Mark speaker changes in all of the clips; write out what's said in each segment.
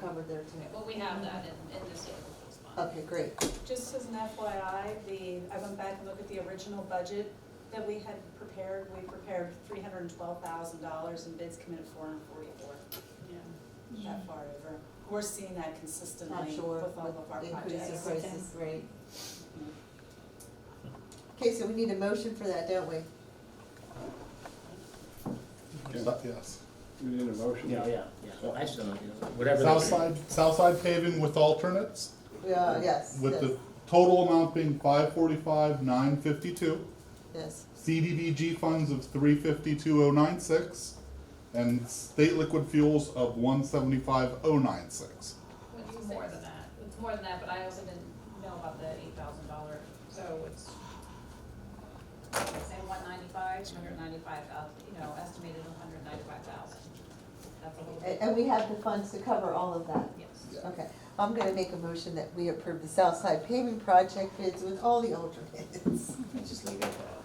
Speaker 1: covered there too.
Speaker 2: Well, we have that in, in this year's bond.
Speaker 1: Okay, great.
Speaker 3: Just as an FYI, the, I went back and looked at the original budget that we had prepared. We prepared three hundred and twelve thousand dollars and bids come in at four hundred and forty-four,
Speaker 2: Yeah.
Speaker 3: that far over. We're seeing that consistently
Speaker 1: Not
Speaker 3: with all
Speaker 1: sure
Speaker 3: of our
Speaker 1: what the
Speaker 3: projects.
Speaker 1: increase in prices, right? Okay, so we need a motion for that, don't we?
Speaker 4: Yes.
Speaker 5: We need a motion?
Speaker 6: Yeah, yeah, yeah, well, I just don't know, you know, whatever. they-
Speaker 4: Southside, Southside paving with alternates,
Speaker 1: Uh, yes,
Speaker 4: with
Speaker 1: yes,
Speaker 4: the total amount being five forty-five, nine fifty-two.
Speaker 1: yes.
Speaker 4: CDBG funds of three fifty-two oh nine six, and state liquid fuels of one seventy-five oh nine six.
Speaker 2: It's more than that, it's more than that, but I also didn't know about the eight thousand dollar, so it's, say one ninety-five, two hundred ninety-five thousand, you know, estimated hundred ninety-five thousand. That's a little
Speaker 1: And,
Speaker 2: bit,
Speaker 1: and we have the funds to cover all of that.
Speaker 2: yes.
Speaker 1: Okay, I'm gonna make a motion that we approve the Southside paving project bids with all the alternates.
Speaker 6: Just leave it at that.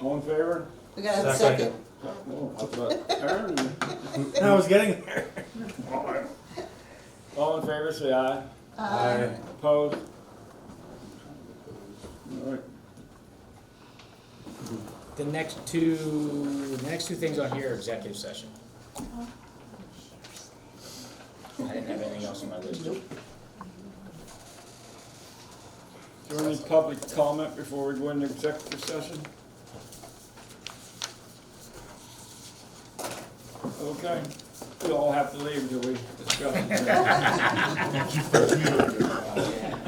Speaker 5: All in favor?
Speaker 1: We gotta have a second.
Speaker 7: Second.
Speaker 5: Oh, I thought- Aaron, you-
Speaker 7: I was getting there.
Speaker 5: All in favor, say aye.
Speaker 1: Uh,
Speaker 5: Opposed? All right.
Speaker 6: The next two, the next two things on here are executive session. I didn't have anything else on my list.
Speaker 5: Is there any public comment before we go into executive session? Okay, we all have to leave until we discuss.
Speaker 4: Thank you for commuting.
Speaker 6: Oh, yeah.